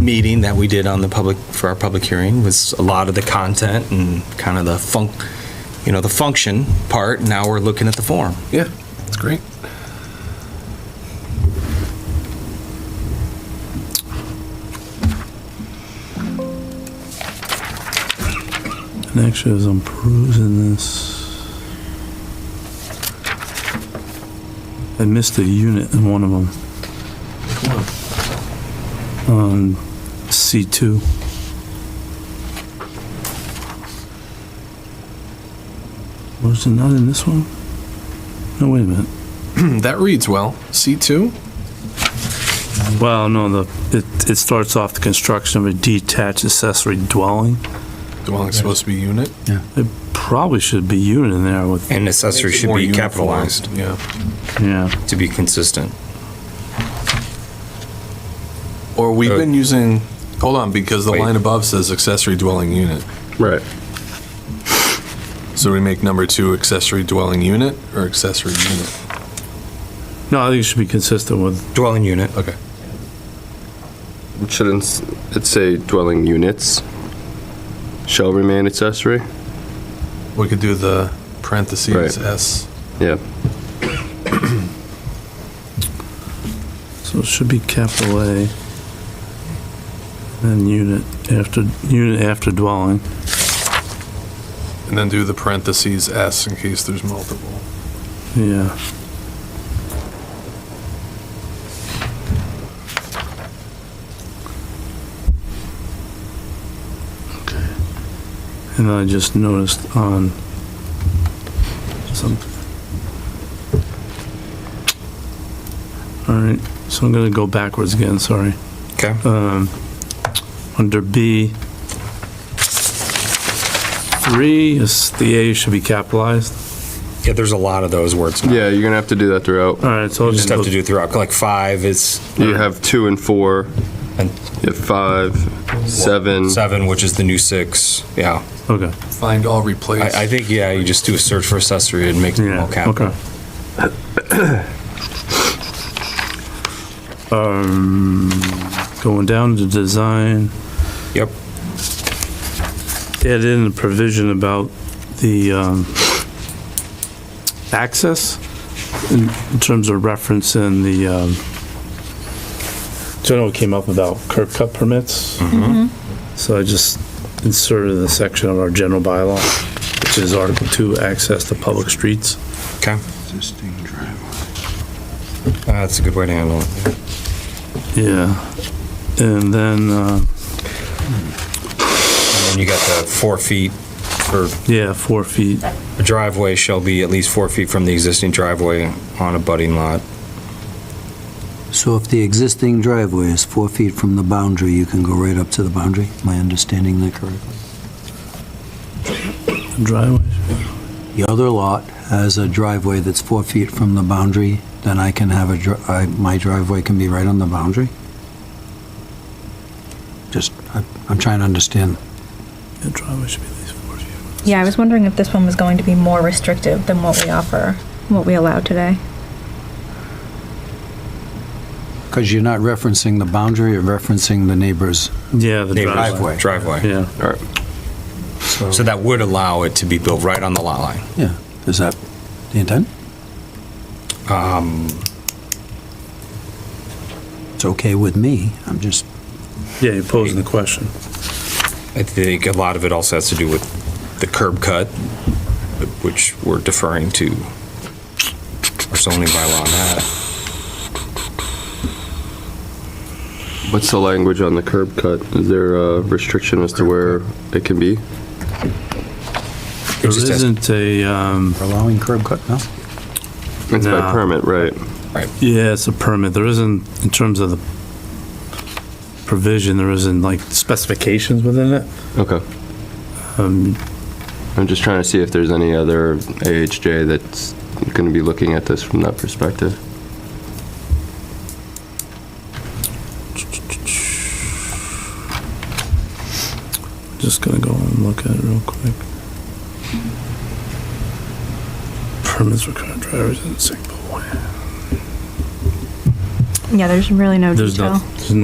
meeting that we did on the public, for our public hearing was a lot of the content and kind of the funk, you know, the function part. Now we're looking at the form. Yeah, it's great. And actually, as I'm perusing this, I missed a unit in one of them. On C2. Was it not in this one? No, wait a minute. Hmm, That reads well. C2? Well, no, the, it, it starts off the construction of a detached accessory dwelling. Dwelling's supposed to be unit. It probably should be unit in there with, And accessory should More be uniform. capitalized Yeah. yeah. to be consistent. Or we've Uh, been using, hold on, because the Wait. line above says accessory dwelling unit. Right. So we make number two accessory dwelling unit or accessory unit? No, I think it should be consistent with, Dwelling unit. Okay. Shouldn't s- it say dwelling units shall remain accessory? We could do the parentheses Right. S. Yeah. so it should be capital A. Then unit after, unit after dwelling. And then do the parentheses S in case there's multiple. Yeah. Okay. And then I just noticed on some. All right, so I'm gonna go backwards again, sorry. Okay. Um, Under B, three, is the A should be capitalized. Yeah, there's a lot of those words. now. Yeah, you're gonna have to do that throughout. All right, so I'll You Just just have go to do throughout, like five is, You have two and four, and you have five, seven. seven, which is the new six. Yeah. Okay. Find all replace. I, I think, yeah, you just do a search for accessory and make them all capital. Okay. Um, going down to design, Yep. add in a provision about the, um, access in in terms of reference in the, um, so I know it came up about curb cut permits. So I just inserted the section of our general bylaw, which is Article 2, access to public streets. Okay. Uh, That's a good way to handle it. Yeah, and then, uh, And then you got the four feet for yeah, four feet, a driveway shall be at least four feet from the existing driveway on a budding lot. So if the existing driveway is four feet from the boundary, you can go right up to the boundary? Am I understanding that correctly? driveway. The other lot has a driveway that's four feet from the boundary, then I can have a, dri- I- my driveway can be right on the boundary? Just, I- I'm trying to understand. Yeah, driveway should be at least four feet. Yeah, I was wondering if this one was going to be more restrictive than what we offer, what we allow today. Because you're not referencing the boundary, you're referencing the neighbor's. Yeah, the Neighbor's driveway. Driveway. Driveway. Yeah, All right. So that would allow it to be built right on the lot line. Yeah, is that the intent? Um, It's okay with me, I'm just, yeah, you're posing the question. I think a lot of it also has to do with the curb cut, which we're deferring to our zoning bylaw on that. What's the language on the curb cut? Is there a restriction as to where it can be? It There just has- isn't a, um, we're allowing curb cut now? It's by No. permit, right? yeah, it's a permit, there isn't, in terms of the provision, there isn't like specifications within it. Okay. Um, I'm just trying to see if there's any other AHJ that's gonna be looking at this from that perspective. Just gonna go and look at it real quick. Permits for current drivers and sick boy. Yeah, there's really no There's detail. not, there's